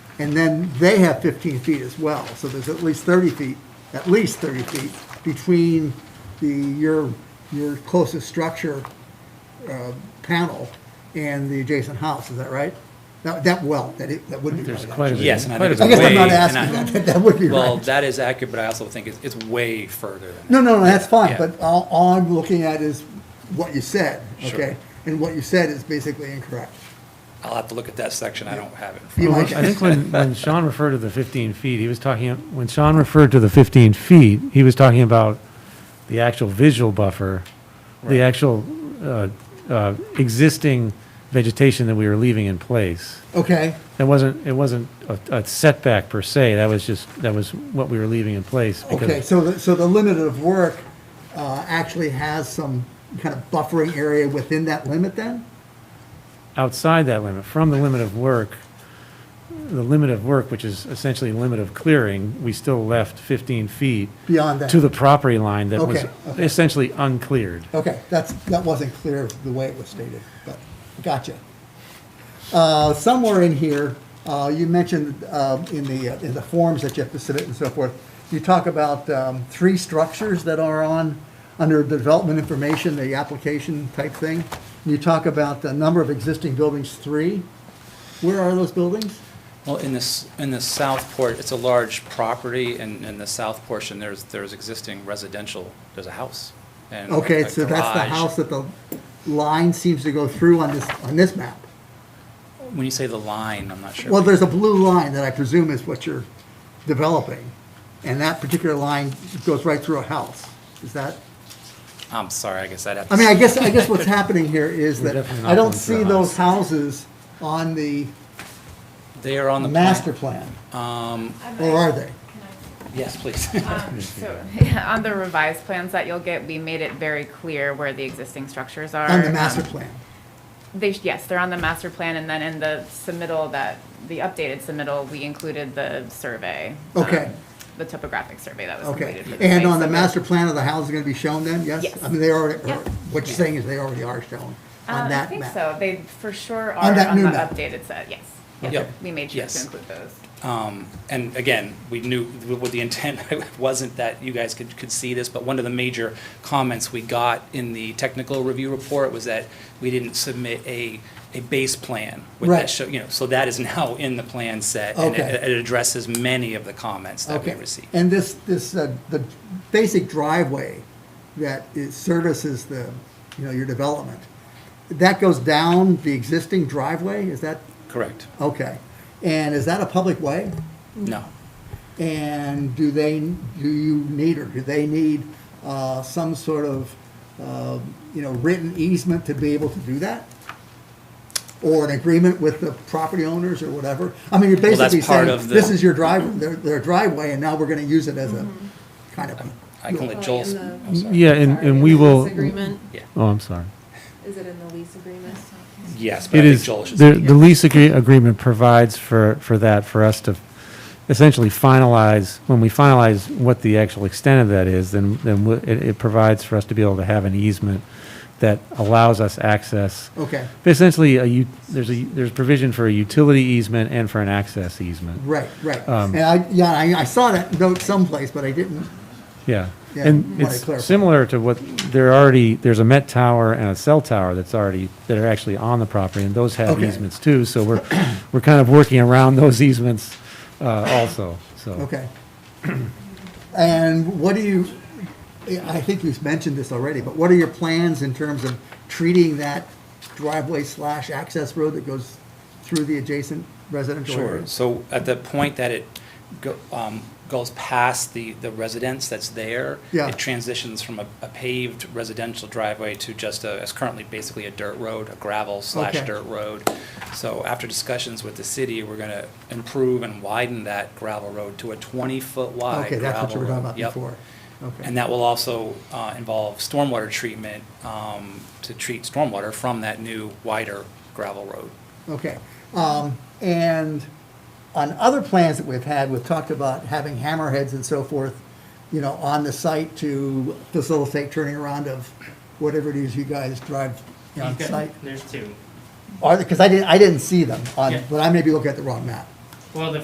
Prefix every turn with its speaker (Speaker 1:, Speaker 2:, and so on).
Speaker 1: And then they have 15 feet as well, so there's at least 30 feet, at least 30 feet between the, your, your closest structure uh, panel and the adjacent house, is that right? That, that well, that it, that would be
Speaker 2: There's
Speaker 1: right,
Speaker 2: quite a
Speaker 1: actually.
Speaker 2: bit.
Speaker 3: Yes, and I
Speaker 2: quite a
Speaker 3: think
Speaker 1: I
Speaker 2: bit
Speaker 1: guess
Speaker 3: it's
Speaker 2: of
Speaker 1: I'm not
Speaker 3: way-
Speaker 1: asking,
Speaker 3: and I-
Speaker 1: that, that would be
Speaker 3: Well,
Speaker 1: right.
Speaker 3: that is accurate, but I also think it's, it's way further than that.
Speaker 1: No, no, no, that's fine,
Speaker 3: Yeah.
Speaker 1: but all, all I'm looking at is what you said,
Speaker 3: Sure.
Speaker 1: okay? And what you said is basically incorrect.
Speaker 3: I'll have to look at that section, I don't have it. in front
Speaker 1: You
Speaker 2: Well,
Speaker 1: might-
Speaker 2: I think when, when Sean referred to the 15 feet, he was talking, when Sean referred to the 15 feet, he was talking about the actual visual buffer, the actual uh, uh, existing vegetation that we were leaving in place.
Speaker 1: Okay,
Speaker 2: That wasn't, it wasn't a a setback per se, that was just, that was what we were leaving in place. because-
Speaker 1: okay, so, the- so the limit of work uh, actually has some kind of buffering area within that limit then?
Speaker 2: outside that limit, from the limit of work, the limit of work, which is essentially limit of clearing, we still left 15 feet.
Speaker 1: Beyond that.
Speaker 2: To the property line that was
Speaker 1: Okay, okay.
Speaker 2: essentially uncleared.
Speaker 1: Okay, that's, that wasn't clear the way it was stated, but gotcha. Uh, Somewhere in here, uh, you mentioned um, in the, in the forms that you have to submit and so forth, you talk about um, three structures that are on, under development information, the application type thing. You talk about the number of existing buildings, three. Where are those buildings?
Speaker 3: Well, in this, in the south port, it's a large property, and in the south portion, there's, there's existing residential, there's a house. and
Speaker 1: Okay,
Speaker 3: a
Speaker 1: so that's the
Speaker 3: garage.
Speaker 1: house that the line seems to go through on this, on this map.
Speaker 3: When you say the line, I'm not sure.
Speaker 1: Well, there's a blue line that I presume is what you're developing, and that particular line goes right through a house. Is that,
Speaker 3: I'm sorry, I guess I'd have to.
Speaker 1: I mean, I guess, I guess what's happening here is that
Speaker 2: definitely not
Speaker 1: I don't
Speaker 2: going through
Speaker 1: see
Speaker 2: a
Speaker 1: those houses on the
Speaker 3: They are on the. plan.
Speaker 1: master plan,
Speaker 2: Um,
Speaker 1: or are they?
Speaker 3: Yes, please.
Speaker 4: So, on the revised plans that you'll get, we made it very clear where the existing structures are.
Speaker 1: On the master
Speaker 4: Um,
Speaker 1: plan?
Speaker 4: They, yes, they're on the master plan, and then in the submittal that, the updated submittal, we included the survey. um,
Speaker 1: Okay.
Speaker 4: The topographic survey that was
Speaker 1: Okay.
Speaker 4: completed. for the
Speaker 1: And
Speaker 4: site,
Speaker 1: on the
Speaker 4: so
Speaker 1: master plan of the house is gonna be shown then, yes?
Speaker 4: Yes.
Speaker 1: I mean, they already,
Speaker 4: Yeah.
Speaker 1: or what you're saying is they already are shown
Speaker 4: Uh,
Speaker 1: on
Speaker 4: I
Speaker 1: that
Speaker 4: think
Speaker 1: map.
Speaker 4: so. They for sure
Speaker 1: On
Speaker 4: are
Speaker 1: that
Speaker 4: on
Speaker 1: new
Speaker 4: the
Speaker 1: map.
Speaker 4: updated set, yes. Yes,
Speaker 3: Yep.
Speaker 4: we made sure to
Speaker 3: Yes.
Speaker 4: include those.
Speaker 3: Um, And again, we knew, what the intent wasn't that you guys could, could see this, but one of the major comments we got in the technical review report was that we didn't submit a, a base plan. with that
Speaker 1: Right.
Speaker 3: show- You know, so that is now in the plan set. and it-
Speaker 1: Okay.
Speaker 3: It addresses many of the comments that we
Speaker 1: Okay,
Speaker 3: received.
Speaker 1: and this, this, uh, the basic driveway that is, services the, you know, your development, that goes down the existing driveway, is that,
Speaker 3: Correct.
Speaker 1: okay. And is that a public way?
Speaker 3: No.
Speaker 1: And do they, do you need, or do they need uh, some sort of, uh, you know, written easement to be able to do that? Or an agreement with the property owners or whatever? I mean, you're
Speaker 3: that's
Speaker 1: basically
Speaker 3: part
Speaker 1: saying,
Speaker 3: of the-
Speaker 1: this is your drive, their- their driveway, and now we're gonna use it as a kind of, a-
Speaker 3: I can let
Speaker 5: Like
Speaker 3: Joel,
Speaker 5: in
Speaker 3: sp-
Speaker 5: the-
Speaker 3: I'm sorry.
Speaker 2: Yeah, and,
Speaker 5: Sorry,
Speaker 2: and
Speaker 5: in
Speaker 2: we
Speaker 5: the
Speaker 2: will.
Speaker 5: lease agreement?
Speaker 3: Yeah.
Speaker 2: Oh, I'm sorry.
Speaker 5: Is it in the lease agreement?
Speaker 3: yes, but I
Speaker 2: It
Speaker 3: think
Speaker 2: is,
Speaker 3: Joel should.
Speaker 2: the, the lease agree- agreement provides for, for that, for us to essentially finalize, when we finalize what the actual extent of that is, then, then we- it, it provides for us to be able to have an easement that allows us access.
Speaker 1: okay,
Speaker 2: Essentially, a, u- there's a, there's provision for a utility easement and for an access easement.
Speaker 1: right, right. And I, yeah, I, I saw that note someplace, but I didn't,
Speaker 2: Yeah.
Speaker 1: Yeah,
Speaker 2: And
Speaker 1: wanna
Speaker 2: it's
Speaker 1: clarify.
Speaker 2: similar to what, they're already, there's a Met Tower and a cell tower that's already, that are actually on the property, and those have
Speaker 1: Okay.
Speaker 2: easements too, so we're, we're kind of working around those easements uh, also, so.
Speaker 1: Okay. And what do you, I think you've mentioned this already, but what are your plans in terms of treating that driveway slash access road that goes through the adjacent residential
Speaker 3: Sure,
Speaker 1: areas?
Speaker 3: so at the point that it go- um, goes past the, the residence that's there,
Speaker 1: Yeah.
Speaker 3: it transitions from a a paved residential driveway to just a, it's currently basically a dirt road, a gravel slash
Speaker 1: Okay.
Speaker 3: dirt road. So after discussions with the city, we're gonna improve and widen that gravel road to a twenty-foot wide
Speaker 1: Okay, that's what you were talking
Speaker 3: gravel
Speaker 1: about
Speaker 3: road. Yep.
Speaker 1: before. Okay.
Speaker 3: And that will also uh, involve stormwater treatment um, to treat stormwater from that new wider gravel road.
Speaker 1: Okay, um, and on other plans that we've had, we've talked about having hammerheads and so forth, you know, on the site to facilitate turning around of whatever it is you guys drive on
Speaker 6: You've got-
Speaker 1: site.
Speaker 6: There's two.
Speaker 1: Are, because I didn't, I didn't see them on,
Speaker 6: Yeah.
Speaker 1: but I may be looking at the wrong map.
Speaker 6: Well, the